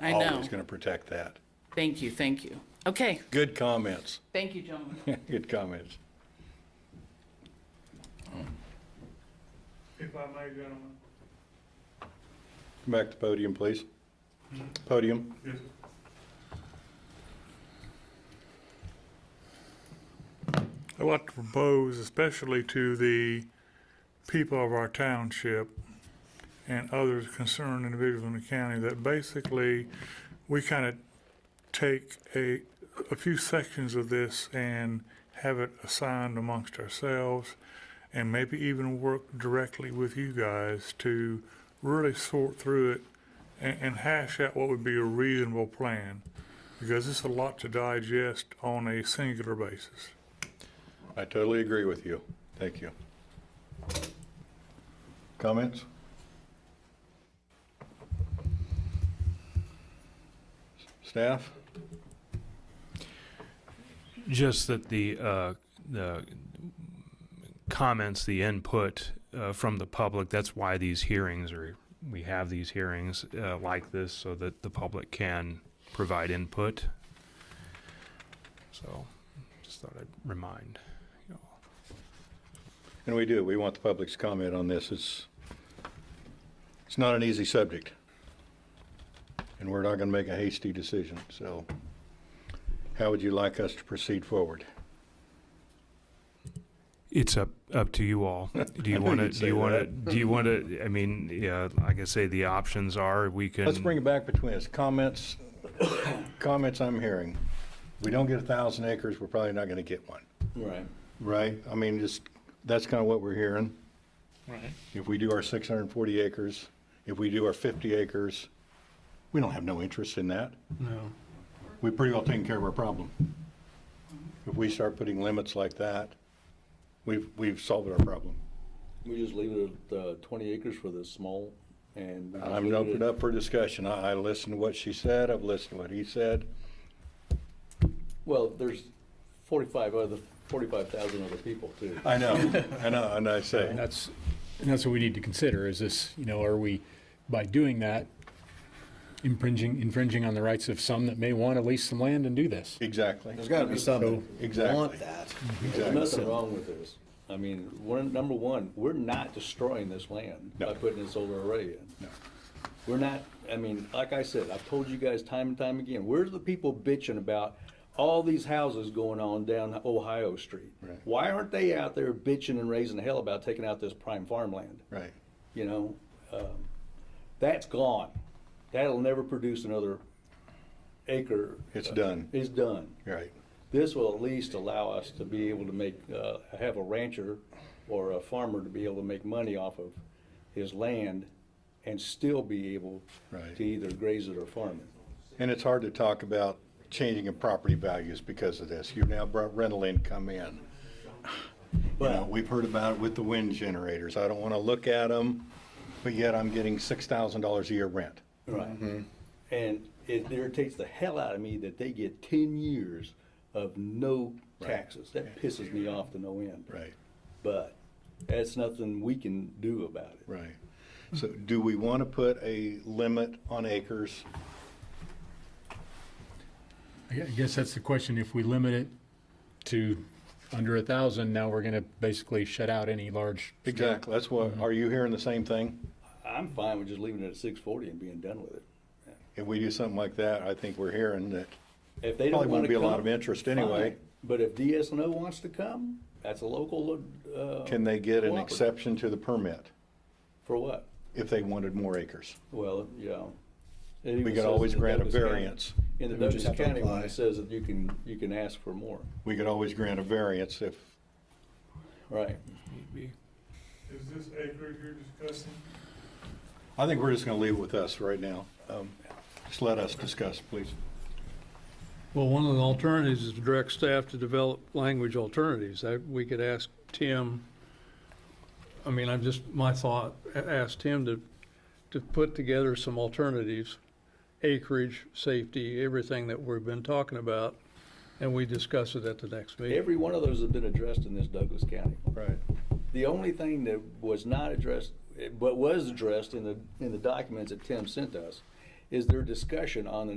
I know. Always going to protect that. Thank you, thank you. Okay, Good comments. thank you, gentlemen. Good comments. If I may, gentlemen. Come back to podium, please. Podium. Yes, I'd like to propose, especially to the people of our township and others concerned individuals in the county, that basically we kind of take a, a few sections of this and have it assigned amongst ourselves and maybe even work directly with you guys to really sort through it and, and hash out what would be a reasonable plan. Because it's a lot to digest on a singular basis. I totally agree with you. Thank you. Comments? Staff? Just that the, uh, the comments, the input, uh, from the public, that's why these hearings are, we have these hearings, uh, like this so that the public can provide input. So, just thought I'd remind. you all. And we do. We want the public's comment on this. It's, it's not an easy subject. And we're not going to make a hasty decision, so how would you like us to proceed forward? It's up, up to you all. Do I you knew want to, you'd do say you want to, that. do you want to, I mean, yeah, like I say, the options are, we can. Let's bring it back between us. Comments, comments I'm hearing. We don't get a thousand acres, we're probably not going to get one, Right. right? I mean, just, that's kind of what we're hearing. Right. If we do our 640 acres, if we do our 50 acres, we don't have no interest in that. No. we pretty well taken care of our problem. If we start putting limits like that, we've, we've solved our problem. We just leave it at uh, 20 acres for the small and. we just I'm leave it open at- up for discussion. I, I listened to what she said, I've listened to what he said. Well, there's 45 other, 45,000 other people too. I know, I know, and I say, And that's, and that's what we need to consider, is this, you know, are we, by doing that, infringing, infringing on the rights of some that may want to lease some land and do this? exactly, There's gotta be something. Exactly. Want that. There's exactly. nothing wrong with this. I mean, we're, number one, we're not destroying this land No. by putting a solar array in. We're not, I mean, like I said, I've told you guys time and time again, where's the people bitching about all these houses going on down Ohio Street? Right. Why aren't they out there bitching and raising hell about taking out this prime farmland? Right. you know, um, that's gone. That'll never produce another acre. It's done. It's done. Right, This will at least allow us to be able to make, uh, have a rancher or a farmer to be able to make money off of his land and still be able Right. to either graze it or farm it. and it's hard to talk about changing in property values because of this. You've now brought rental income in. You know, But- we've heard about it with the wind generators. I don't want to look at them, but yet I'm getting $6,000 a year rent. Mm-hmm. Right. And it irritates the hell out of me that they get ten years of no taxes. That pisses me off to no end. Right. But that's nothing we can do about it. Right. So do we want to put a limit on acres? I gue- I guess that's the question, if we limit it to under a thousand, now we're going to basically shut out any large. Exactly. That's what, are you hearing the same thing? I'm fine with just leaving it at six forty and being done with it. If we do something like that, I think we're hearing that If probably they don't won't wanna be a come. lot of interest anyway. fine. But if DSNO wants to come, that's a local, uh, Can they get an Cooperative. exception to the permit for what? if they wanted more acres? Well, you know. it We even could says always in the grant a Douglas County- variance. In the We just Douglas have to County one, apply. it says that you can, you can ask for more, We could always grant a variance if, right? Is this acreage you're discussing? I think we're just going to leave it with us right now. Um, Just let us discuss, please. Well, one of the alternatives is to direct staff to develop language alternatives. That, we could ask Tim, I mean, I'm just, my thought, a- ask Tim to, to put together some alternatives, acreage, safety, everything that we've been talking about, and we discuss it at the next meeting. Every one of those have been addressed in this Douglas County. Right. The only thing eh, that was not addressed, but was addressed in the, in the documents that Tim sent us, is their discussion on the